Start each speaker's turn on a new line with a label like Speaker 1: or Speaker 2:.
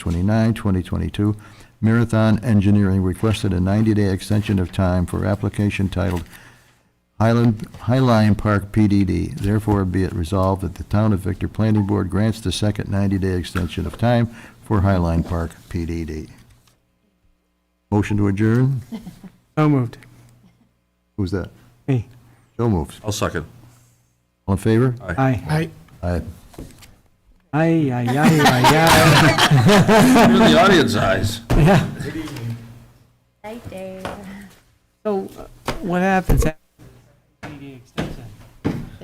Speaker 1: 29, 2022, Marathon Engineering requested a 90-day extension of time for application titled Highland, Highline Park PDD. Therefore, be it resolved that the Town of Victor Planning Board grants the second 90-day extension of time for Highline Park PDD. Motion to adjourn?
Speaker 2: So moved.
Speaker 1: Who's that?
Speaker 2: Me.
Speaker 1: Joe moves.
Speaker 3: I'll second.
Speaker 1: All in favor?
Speaker 2: Aye. Aye,
Speaker 1: Aye.
Speaker 2: aye, aye, aye,
Speaker 3: You're the audience eyes.
Speaker 2: aye. Yeah.
Speaker 4: Right there.
Speaker 2: So uh, what happens